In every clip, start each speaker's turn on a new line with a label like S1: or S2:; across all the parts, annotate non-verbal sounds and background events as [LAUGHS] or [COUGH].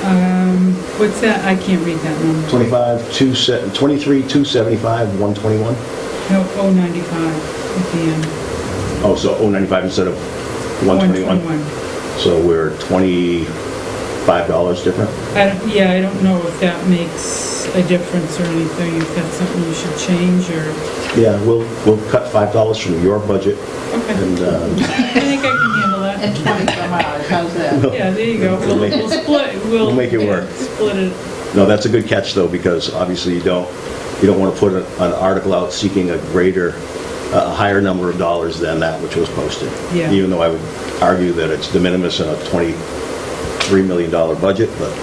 S1: Um, what's that? I can't read that number.
S2: 25, 2, se- 23, 275, 121?
S1: No, 095 Oh, at the end.
S2: Oh, so 095 instead of 121? So we're $25 different?
S1: I don't, yeah, I don't know if that makes a difference or anything, if that's something you should change or,
S2: Yeah, we'll, we'll cut $5 from your budget
S1: okay.
S2: and uh,
S1: I think I can handle that.
S2: [LAUGHS]
S3: At 24 miles, how's that?
S1: Yeah, there you go. We'll,
S2: We'll make it-
S1: we'll split, we'll.
S2: we'll make it work.
S1: Split it.
S2: No, that's a good catch, though, because obviously you don't, you don't want to put a- an article out seeking a greater, a higher number of dollars than that which was posted.
S1: Yeah.
S2: Even though I would argue that it's de minimis in a $23 million budget, but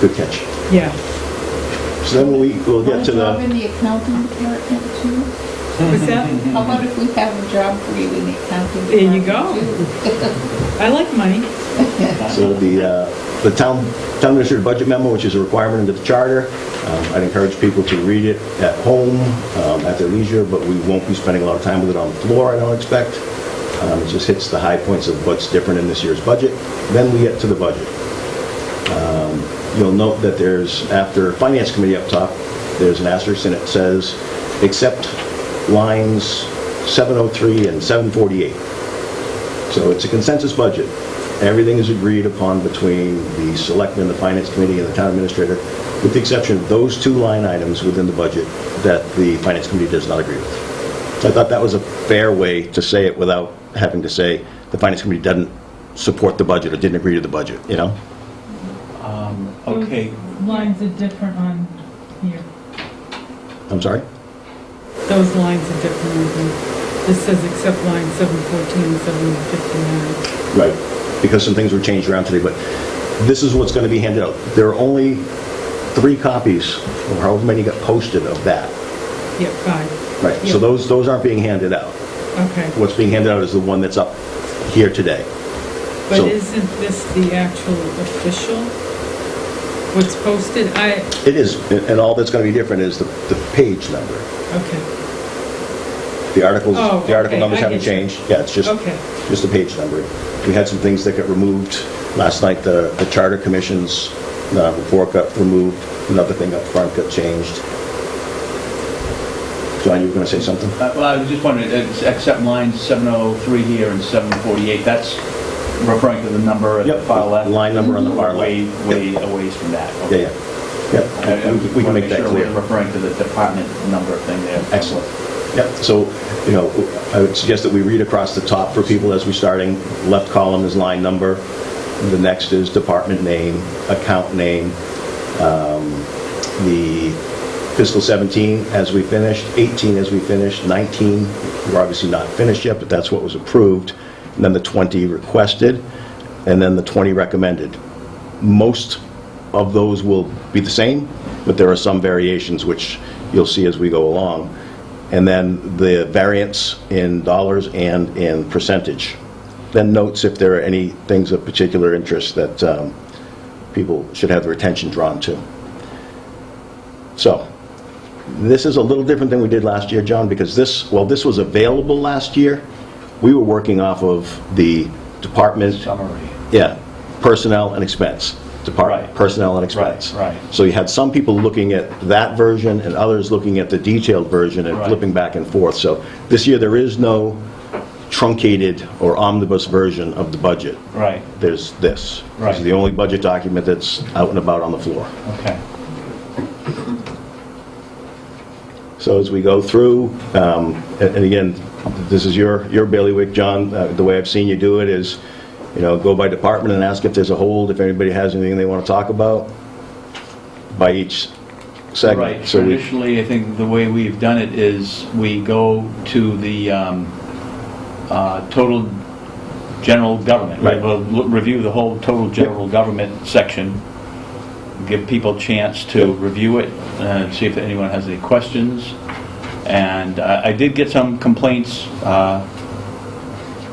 S2: good catch.
S1: Yeah,
S2: So then we, we'll get
S3: Want
S2: to
S3: a job
S2: the,
S3: in the accounting department too?
S1: was that,
S3: How about if we have a job for Mm-hmm. you in the accounting department?
S1: There you go.
S3: too?
S1: I like money.
S2: so the, uh, the town, town administrator budget memo, which is a requirement under the charter. Um, I'd encourage people to read it at home, um, at their leisure, but we won't be spending a lot of time with it on the floor, I don't expect. Um, It just hits the high points of what's different in this year's budget. Then we get to the budget. Um, You'll note that there's, after Finance Committee up top, there's an asterisk and it says, except lines 703 and 748. So it's a consensus budget. Everything is agreed upon between the selectmen, the finance committee, and the town administrator, with the exception of those two line items within the budget that the finance committee does not agree with. So I thought that was a fair way to say it without having to say, the finance committee doesn't support the budget or didn't agree to the budget, you know?
S4: Um, Okay,
S1: Lines are different on here.
S2: I'm sorry?
S1: Those lines are different on here. This says except line 714 and 759.
S2: Right. Because some things were changed around today, but this is what's going to be handed out. There are only three copies, or however many got posted of that.
S1: Yep, five.
S2: Right, so
S1: Yeah.
S2: those, those aren't being handed out.
S1: Okay.
S2: What's being handed out is the one that's up here today.
S1: But
S2: So-
S1: isn't this the actual official? What's posted? I,
S2: It is, and all that's going to be different is the, the page number.
S1: okay,
S2: The articles,
S1: Oh,
S2: the article
S1: okay,
S2: numbers
S1: I
S2: haven't
S1: get you.
S2: changed. Yeah, it's just,
S1: Okay.
S2: just the page number. We had some things that got removed. Last night, the, the charter commissions uh, report got removed. Another thing up front got changed. John, you were going to say something?
S4: Uh, well, I was just wondering, it's- except line 703 here and 748, that's referring to the number at the
S2: Yep,
S4: far left?
S2: line number on the far left.
S4: Way, way
S2: Yep.
S4: away from that?
S2: Yeah, yeah.
S4: okay. I- I
S2: Yeah, we- we can
S4: wanna
S2: make that
S4: sure
S2: clear.
S4: we're referring to the department number thing there.
S2: Excellent. Yep, so, you know, I would suggest that we read across the top for people as we're starting. Left column is line number, the next is department name, account name, um, the fiscal 17 as we finished, 18 as we finished, 19, we're obviously not finished yet, but that's what was approved, and then the 20 requested, and then the 20 recommended. Most of those will be the same, but there are some variations, which you'll see as we go along. And then the variance in dollars and in percentage. Then notes if there are any things of particular interest that um, people should have their attention drawn to. So, this is a little different than we did last year, John, because this, while this was available last year, we were working off of the department
S4: Summary.
S2: yeah, personnel and expense, department,
S4: Right.
S2: personnel and expense.
S4: Right, right.
S2: So you had some people looking at that version and others looking at the detailed version and
S4: Right.
S2: flipping back and forth. So this year, there is no truncated or omnibus version of the budget.
S4: Right,
S2: There's this. This
S4: Right.
S2: is the only budget document that's out and about on the floor.
S4: okay.
S2: So as we go through, um, and and again, this is your your bailiwick, John, Uh, the way I've seen you do it is, you know, go by department and ask if there's a hold, if anybody has anything they want to talk about by each segment.
S4: Right,
S2: So we-
S4: traditionally, I think the way we've done it is we go to the um, uh, total general government.
S2: Right.
S4: We'll l- review the whole total general government section, give people a chance to review it, and see if anyone has any questions. And uh, I did get some complaints uh,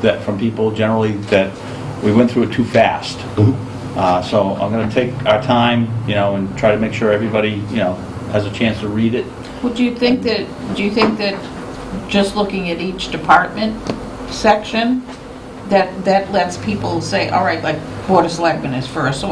S4: that, from people generally, that we went through it too fast. Uh, So I'm going to take our time, you know, and try to make sure everybody, you know, has a chance to read it.
S3: Would you think that, do you think that just looking at each department section, that, that lets people say, all right, like Board of Selectmen is first, so